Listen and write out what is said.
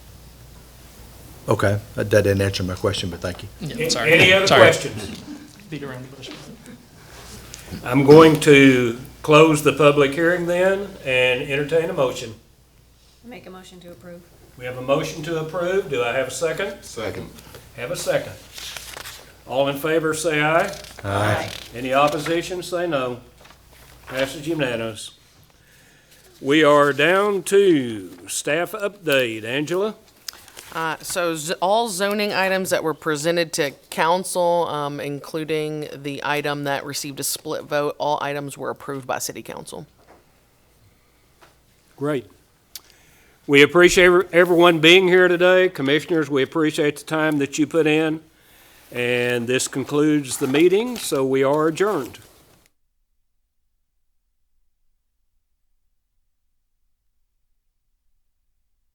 Okay, that that didn't answer my question, but thank you. Yeah, sorry. Any other Sorry. questions? Beat around the bush. I'm going to close the public hearing then and entertain a motion. Make a motion to approve. We have a motion to approve. Do I have a second? Second. Have a second. All in favor, say aye. Aye. Any opposition, say no. Passes unanimous. We are down to staff update. Angela? Uh, So z- all zoning items that were presented to council, um, including the item that received a split vote, all items were approved by city council. Great. We appreciate everyone being here today. Commissioners, we appreciate the time that you put in. And this concludes the meeting, so we are adjourned.